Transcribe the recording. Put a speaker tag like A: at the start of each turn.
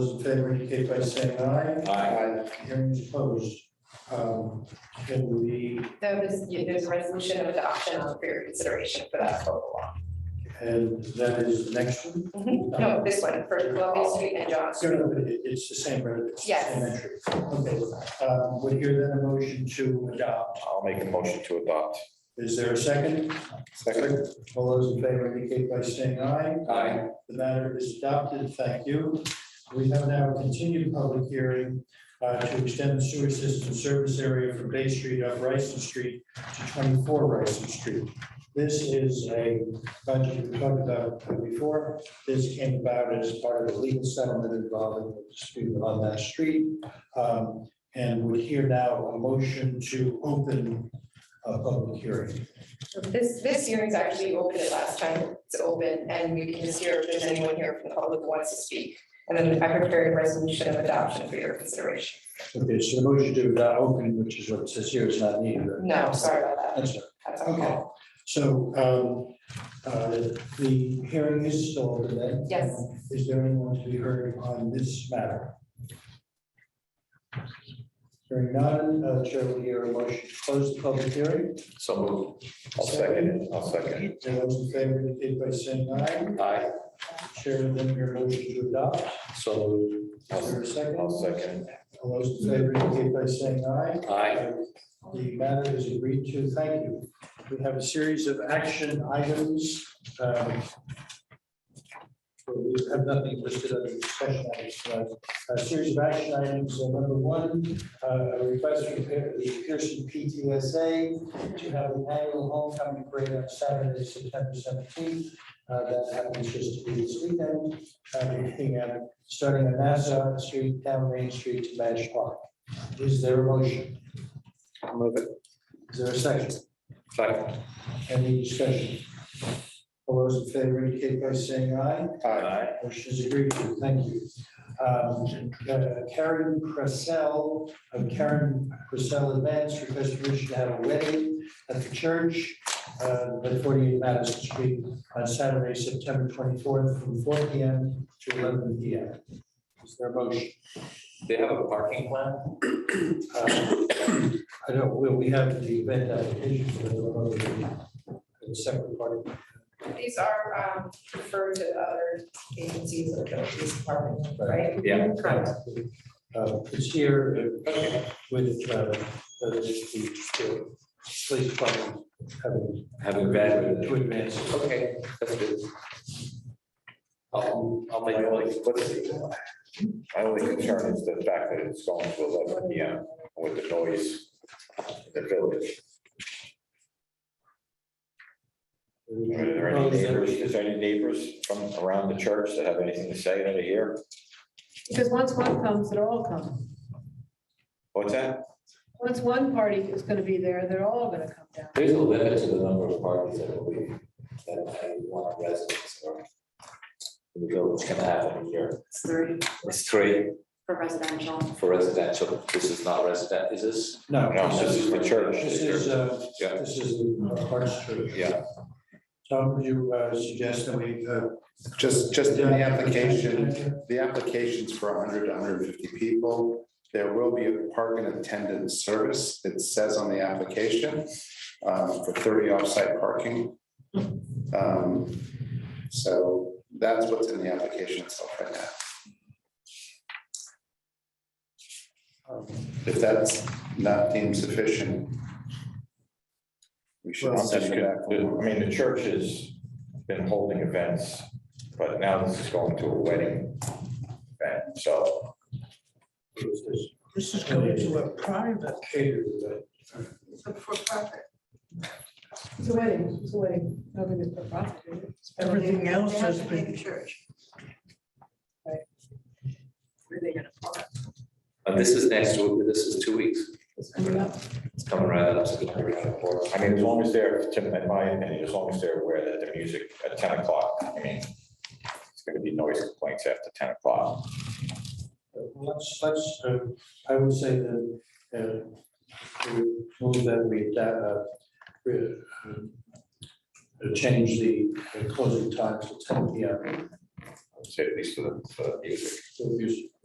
A: Those in favor indicate by saying aye.
B: Aye.
A: Hearing is closed. Um, Can we,
C: That was, yeah, there's a resolution of adoption for your consideration for that code law.
A: and that is the next one?
C: No, this one for Columbia Street and John
A: No,
C: Street.
A: no, but it- it's the same, right? It's the
C: Yes.
A: same entry. Okay, um, would hear then a motion to adopt.
B: I'll make a motion to adopt.
A: Is there a second?
B: Second.
A: All those in favor indicate by saying aye.
B: Aye.
A: The matter is adopted. Thank you. We have now continued public hearing uh, to extend the sewer system service area from Bay Street up Rice Street to 24 Rice Street. This is a budget we talked about before. This came about as part of a legal settlement involving a dispute on that street. Um, And we hear now a motion to open a public hearing.
C: This, this hearing's actually open it last time. It's open and we can just hear if there's anyone here from the public who wants to speak. And then I prepared a resolution of adoption for your consideration.
A: Okay, so the motion to adopt opening, which is what it says here, is not needed. right?
C: No, sorry about that.
A: That's right.
C: That's
A: Okay,
C: okay.
A: so um, uh, the hearing is still today.
C: Yes.
A: Is there anyone to be heard on this matter? Hearing none, uh, Chair will hear a motion to close the public hearing.
B: So moved. I'll second it. I'll second it.
A: And Those in favor indicate by saying aye.
B: Aye.
A: Chair, then your motion to adopt.
B: So moved.
A: Is there
B: I'll
A: a second?
B: I'll second.
A: All those in favor indicate by saying aye.
B: it. Aye.
A: The matter is agreed to. Thank you. We have a series of action items. um, so We have nothing listed under discussion items. but A series of action items. So Number one, uh, a request from Pier- the Pearson PTSA to have an annual homecoming parade on Saturday, September seventeenth. Uh, That happens just to be this weekend. uh, beginning at- Starting on Nassau Street, down Main Street to Madge Park. Is there a motion?
B: I'll move it.
A: Is there a second?
B: Second.
A: Any discussion? All those in favor indicate by saying aye.
B: Aye.
A: Motion is agreed to. Thank you. Um, uh, Karen Cressell of Karen Cressell Advance requests permission to have a wedding at the church uh, at 48 Madison Street on Saturday, September 24th, from four PM to eleven PM. Is there a motion?
B: They have a parking plan?
A: Uh, I don't, we, we have the event application for the, uh, the separate part.
C: These are um, referred to other agencies or the police department, right?
B: Yeah.
C: Correct.
A: Uh, It's here uh, with uh, uh, the the police department having
B: Have a bad.
A: to advance.
B: Okay, that's good. I'll, I'll make, like, what's the? My only concern is the fact that it's going to eleven P M with the noise in the village. Are there any
A: Oh,
B: neighbors, is there any neighbors from around the church that have anything to say over here?
D: Because once one comes, they're all coming.
B: What's that?
D: Once one party is gonna be there, they're all gonna come down.
E: There's a limit to the number of parties that will be, that I want residents or the village can have in a year.
F: It's three
E: It's three
F: for residential.
E: for residential. This is not resident, is this?
A: No.
B: No, this is the church.
A: This is, uh,
B: Yeah.
A: this is the Hearts Church.
B: Yeah.
A: Tom, would you uh, suggest that we? uh,
G: Just, just in the application, the application's for hundred to hundred and fifty people. There will be a park and attendance service, it says on the application, um, for thirty off-site parking. Um, So that's what's in the application itself right now. Um, If that's not deemed sufficient, we should
B: I'm just
G: send it
B: gonna-
G: back.
B: I mean, the church has been holding events, but now this is going to a wedding. event. so
A: This is going to a private caterer.
D: For profit. It's a wedding, it's a wedding. Nothing is for profit. is it?
H: Everything else has
D: They have to pay
H: been-
D: the Church. Right. Where are they gonna park?
E: And Uh, this is next week, this is two weeks. It's
D: coming up.
E: It's coming right up. so it's gonna be right up.
B: I mean, as long as they're, to- in my opinion, as long as they're aware that the music at ten o'clock, I mean, it's gonna be noise complaints after ten o'clock.
A: uh, Let's, let's, uh, I would say that, uh, to move that we, adapt, uh, um, re- uh, change the closing time to ten P M.
B: say at least for the, for the music.
A: So if you-